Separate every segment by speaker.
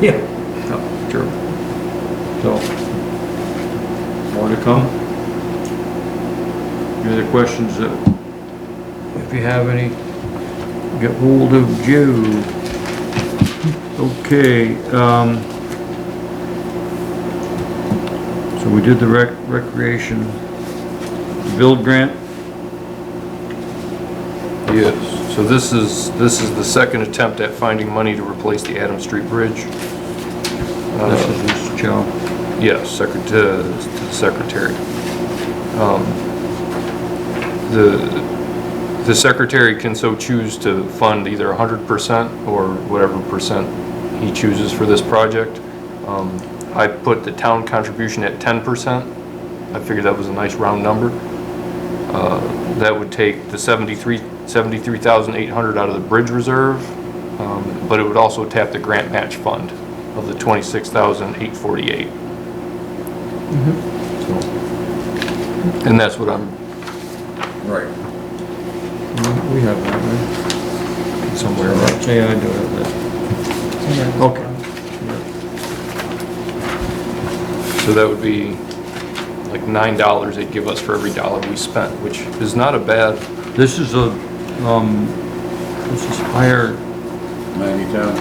Speaker 1: Yeah. Yep, true. So, more to come. Any other questions that, if you have any, get hold of Joe. Okay, um, so we did the rec, recreation build grant.
Speaker 2: Yes, so this is, this is the second attempt at finding money to replace the Adam Street Bridge.
Speaker 1: This
Speaker 2: Uh,
Speaker 1: is his job.
Speaker 2: Yes, secret- to- to the secretary. Um, The, the secretary can so choose to fund either 100% or whatever percent he chooses for this project. Um, I put the town contribution at 10%. I figured that was a nice round number. Uh, That would take the 73 73,800 out of the bridge reserve, um, but it would also tap the grant match fund of the 26,848. So, And that's what I'm
Speaker 1: Right. We have that, right?
Speaker 2: somewhere around.
Speaker 1: Yeah, I do have that. Okay.
Speaker 2: So that would be like nine dollars they'd give us for every dollar we spent, which is not a bad,
Speaker 1: This is a, um, this is higher,
Speaker 3: Ninety town.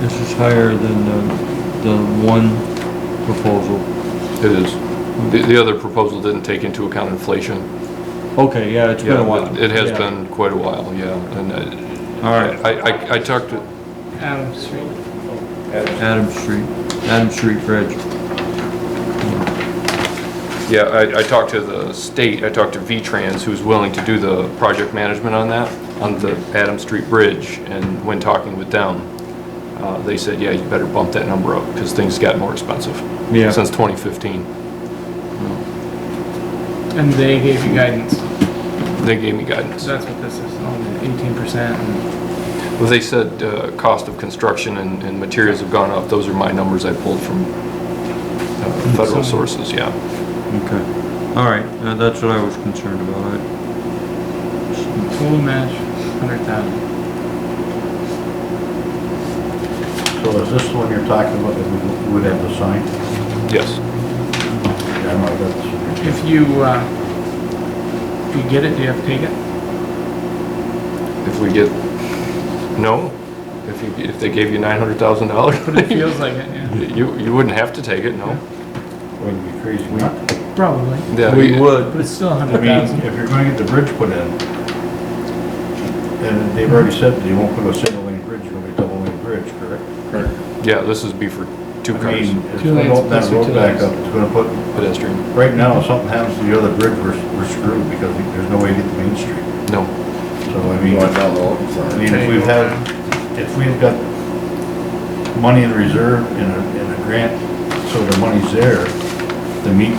Speaker 1: this is higher than the, the one proposal.
Speaker 2: it is. The, the other proposal didn't take into account inflation.
Speaker 1: Okay, yeah, it's been a while.
Speaker 2: It has
Speaker 1: Yeah.
Speaker 2: been quite a while, yeah, and I-
Speaker 1: All right,
Speaker 2: I, I, I talked to,
Speaker 4: Adam Street.
Speaker 1: Adam Street, Adam Street Bridge.
Speaker 2: yeah, I, I talked to the state, I talked to V-Trans, who's willing to do the project management on that, on the Adam Street Bridge, and when talking with them, uh, they said, yeah, you better bump that number up, because things got more expensive
Speaker 1: Yeah.
Speaker 2: since twenty fifteen.
Speaker 4: And they gave you guidance.
Speaker 2: They gave me guidance.
Speaker 4: So that's what this is, on the eighteen percent.
Speaker 2: Well, they said uh, cost of construction and and materials have gone up. Those are my numbers I pulled from uh, federal
Speaker 4: Some-
Speaker 2: sources, yeah.
Speaker 1: Okay, all right, uh, that's what I was concerned about. I-
Speaker 4: Total match, hundred thousand.
Speaker 3: So is this the one you're talking about that we would have to sign?
Speaker 2: Yes.
Speaker 3: Yeah, I might have to-
Speaker 4: If you, uh, if you get it, do you have to take it?
Speaker 2: If we get, no? If you, if they gave you
Speaker 4: But it
Speaker 2: $900,000?
Speaker 4: feels like it, yeah.
Speaker 2: You, you wouldn't have to take it, no?
Speaker 3: Wouldn't be crazy not to.
Speaker 4: Probably.
Speaker 2: Yeah,
Speaker 1: We
Speaker 2: you-
Speaker 1: would,
Speaker 4: But it's still a
Speaker 3: I
Speaker 4: hundred
Speaker 3: mean,
Speaker 4: thousand.
Speaker 3: if you're gonna get the bridge put in, and they've already said that they won't put a single lane bridge, it'll be a double lane bridge, correct?
Speaker 2: Yeah, this is be for two
Speaker 3: I
Speaker 2: cars,
Speaker 3: mean, if
Speaker 4: Two
Speaker 3: they
Speaker 4: lanes
Speaker 3: open that
Speaker 4: plus or two
Speaker 3: road back
Speaker 4: lanes.
Speaker 3: up, it's gonna put,
Speaker 2: pedestrian.
Speaker 3: right now, if something happens to the other bridge, we're, we're screwed because we- there's no way to get to Main Street.
Speaker 2: No.
Speaker 3: So I mean, I mean, if we've had, if we've got money in reserve in a, in a grant, so the money's there, to meet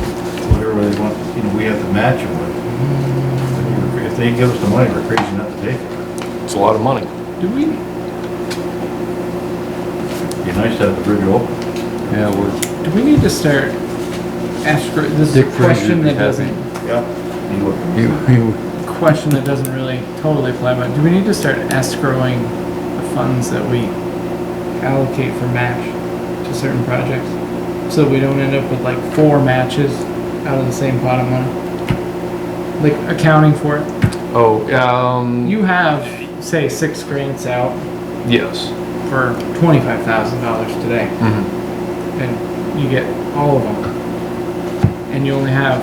Speaker 3: whatever they want, you know, we have to match them with. If they give us the money, we're crazy not to take it.
Speaker 2: It's a lot of money.
Speaker 4: Do we,
Speaker 3: It'd Be nice to have the bridge open.
Speaker 2: Yeah, we're.
Speaker 4: do we need to start escrow, this
Speaker 1: Dick
Speaker 4: is a question
Speaker 1: Frazier would
Speaker 4: that
Speaker 1: be happy.
Speaker 4: doesn't,
Speaker 3: Yeah. You would-
Speaker 1: you, you,
Speaker 4: question that doesn't really totally apply, but do we need to start escrowing the funds that we allocate for match to certain projects? So we don't end up with like four matches out of the same pot of money? Like accounting for it?
Speaker 2: Oh, um,
Speaker 4: You have, say, six grants out
Speaker 2: yes.
Speaker 4: for twenty-five thousand dollars today,
Speaker 2: Mhm.
Speaker 4: and you get all of them. And you only have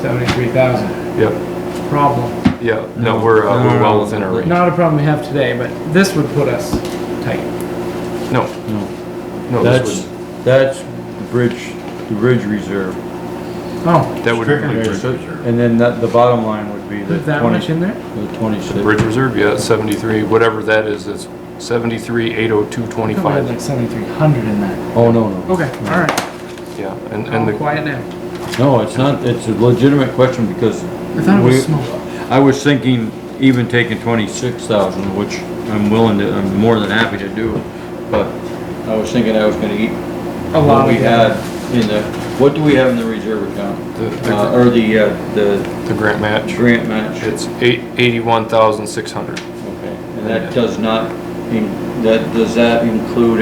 Speaker 4: seventy-three thousand.
Speaker 2: Yep,
Speaker 4: Problem.
Speaker 2: yeah.
Speaker 1: No.
Speaker 2: No, we're, uh,
Speaker 1: No, no,
Speaker 2: we're
Speaker 1: no.
Speaker 2: well within our range.
Speaker 4: Not a problem we have today, but this would put us tight.
Speaker 2: No,
Speaker 1: no,
Speaker 2: no,
Speaker 1: that's,
Speaker 2: this would,
Speaker 1: that's the bridge, the bridge reserve.
Speaker 4: Oh,
Speaker 2: that would.
Speaker 3: Strictly
Speaker 1: Okay,
Speaker 3: bridge
Speaker 1: so-
Speaker 3: reserve.
Speaker 1: And then that, the bottom line would be the
Speaker 4: is that much
Speaker 1: twenty,
Speaker 4: in there?
Speaker 1: the twenty-six.
Speaker 2: Bridge Reserve, yeah, it's 73, whatever that is, it's oh 73,
Speaker 4: I thought we had like 7,300 in that.
Speaker 1: Oh, no, no.
Speaker 4: Okay, all right.
Speaker 2: Yeah, and, and
Speaker 1: Oh,
Speaker 4: I'll
Speaker 2: the,
Speaker 4: quiet down.
Speaker 1: No, it's not, it's a legitimate question because.
Speaker 4: I thought it
Speaker 1: we-
Speaker 4: was small.
Speaker 1: I was thinking even taking twenty-six thousand, which I'm willing to, I'm more than happy to do, but I was thinking I was gonna eat.
Speaker 4: A lot
Speaker 1: What we
Speaker 4: of
Speaker 1: had
Speaker 4: that.
Speaker 1: in the, what do we have in the reserve account?
Speaker 2: The- the-
Speaker 1: Uh, or the, uh, the
Speaker 2: the grant match,
Speaker 1: grant match?
Speaker 2: it's eight- 81,600.
Speaker 1: Okay, and that does not in- that, does that include